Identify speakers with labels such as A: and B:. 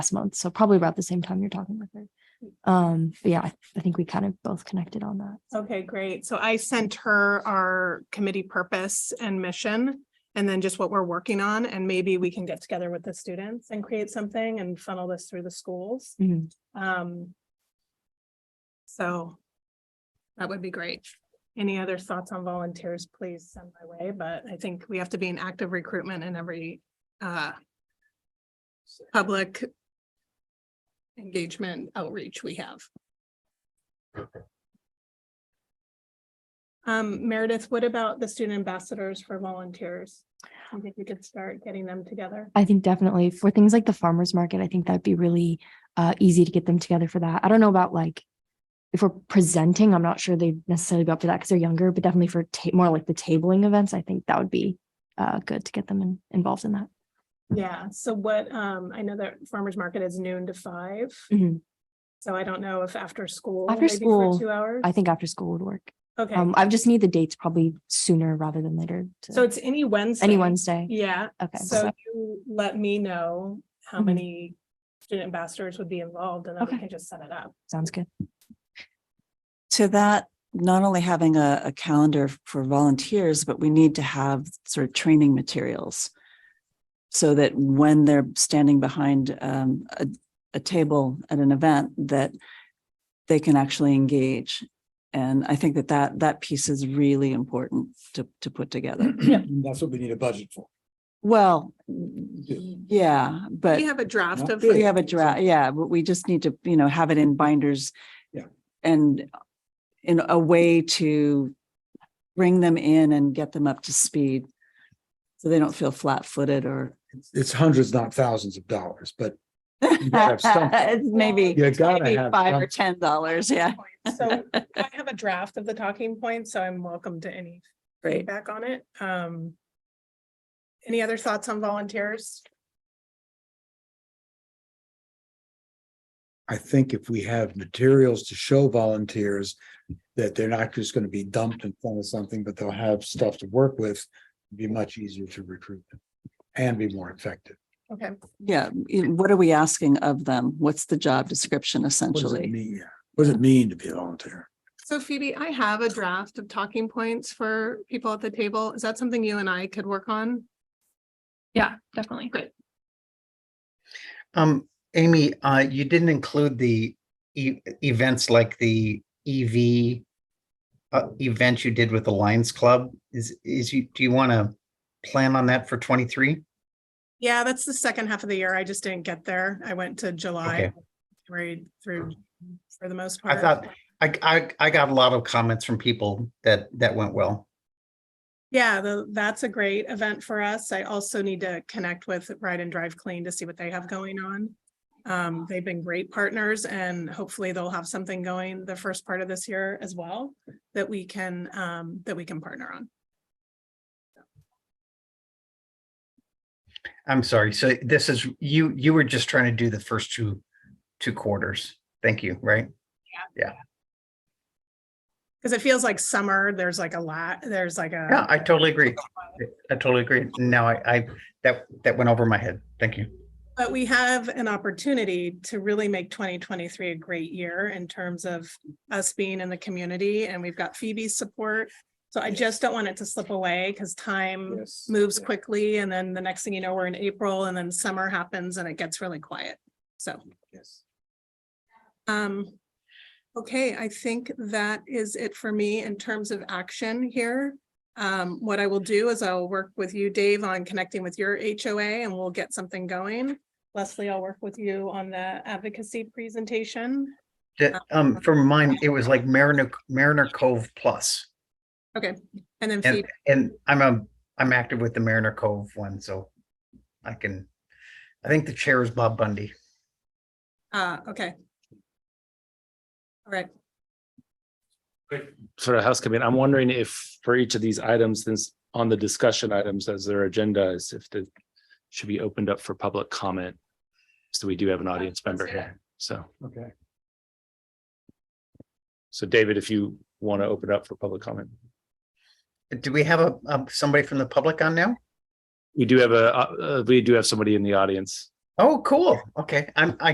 A: last month, so probably about the same time you're talking with her. Um, but yeah, I- I think we kind of both connected on that.
B: Okay, great. So I sent her our committee purpose and mission and then just what we're working on and maybe we can get together with the students and create something and funnel this through the schools.
A: Mhm.
B: Um. So. That would be great. Any other thoughts on volunteers, please send my way, but I think we have to be in active recruitment in every uh. Public. Engagement outreach we have. Um, Meredith, what about the student ambassadors for volunteers? Do you think we could start getting them together?
A: I think definitely for things like the farmer's market, I think that'd be really uh easy to get them together for that. I don't know about like. If we're presenting, I'm not sure they'd necessarily be up to that because they're younger, but definitely for ta- more like the tabling events, I think that would be uh good to get them in- involved in that.
B: Yeah, so what, um, I know that farmer's market is noon to five,
A: Mhm.
B: so I don't know if after school.
A: After
B: maybe for
A: school,
B: Two hours?
A: I think after school would work.
B: Okay,
A: Um, I just need the dates probably sooner rather than later. to-
B: so it's any Wednesday.
A: Any Wednesday.
B: Yeah,
A: Okay.
B: so you let me know how
A: Mhm.
B: many student ambassadors would be involved and then we
A: Okay.
B: can just set it up.
A: Sounds good.
C: to that, not only having a, a calendar for volunteers, but we need to have sort of training materials. So that when they're standing behind um, a, a table at an event, that they can actually engage. And I think that that, that piece is really important to, to put together.
D: And That's what we need a budget for.
C: Well, yeah, but
B: We have a draft
D: Not
B: of.
D: big.
C: we have a draft, yeah, but we just need to, you know, have it in binders.
D: Yeah.
C: And in a way to bring them in and get them up to speed. So they don't feel flat footed or.
D: It's- It's hundreds, not thousands of dollars, but you gotta have something.
C: It's Maybe,
D: You gotta
C: maybe
D: have
C: five or
D: something.
C: ten dollars, yeah,
B: So I have a draft of the talking points, so I'm welcome to any
C: great.
B: feedback on it. Um. Any other thoughts on volunteers?
D: I think if we have materials to show volunteers that they're not just gonna be dumped in front of something, but they'll have stuff to work with, it'd be much easier to recruit them and be more effective.
B: Okay,
C: Yeah, you- what are we asking of them? What's the job description
D: What does it
C: essentially?
D: mean? Yeah. What does it mean to be a volunteer?
B: so Phoebe, I have a draft of talking points for people at the table. Is that something you and I could work on?
E: Yeah, definitely.
F: Um, Amy, uh, you didn't include the e- events like the EV uh, event you did with the Lions Club. Is, is you, do you want to plan on that for twenty-three?
B: Yeah, that's the second half of the year. I just didn't get there. I went to July.
F: Okay.
B: Right through for the most
F: I
B: part.
F: thought- I, I, I got a lot of comments from people that, that went well.
B: Yeah, the, that's a great event for us. I also need to connect with Ride and Drive Clean to see what they have going on. Um, they've been great partners and hopefully they'll have something going the first part of this year as well that we can, um, that we can partner on.
F: I'm sorry. So this is, you, you were just trying to do the first two, two quarters. Thank you, right?
B: Cause it feels like summer, there's like a lot, there's like a.
F: Yeah, I totally agree. I totally agree. Now I, I, that, that went over my head. Thank you.
B: But we have an opportunity to really make twenty twenty-three a great year in terms of us being in the community and we've got Phoebe's support. So I just don't want it to slip away because time
D: Yes.
B: moves quickly and then the next thing you know, we're in April and then summer happens and it gets really quiet. So,
D: Yes.
B: um, okay, I think that is it for me in terms of action here. Um, what I will do is I'll work with you, Dave, on connecting with your HOA and we'll get something going. Leslie, I'll work with you on the advocacy presentation.
F: That, um, for mine, it was like Mariner, Mariner Cove Plus.
B: And then
F: And,
B: Phoebe,
F: and I'm a, I'm active with the Mariner Cove one, so I can, I think the chair is Bob Bundy.
B: uh, okay. All right,
G: sort of house committee, I'm wondering if for each of these items, since on the discussion items as their agendas, if they should be opened up for public comment. So we do have an audience member here, so.
D: Okay.
G: So David, if you want to open up for public comment,
F: Do we have a, um, somebody from the public on now?
G: we do have a, uh, we do have somebody in the audience.
F: Oh, cool. Okay. I'm, I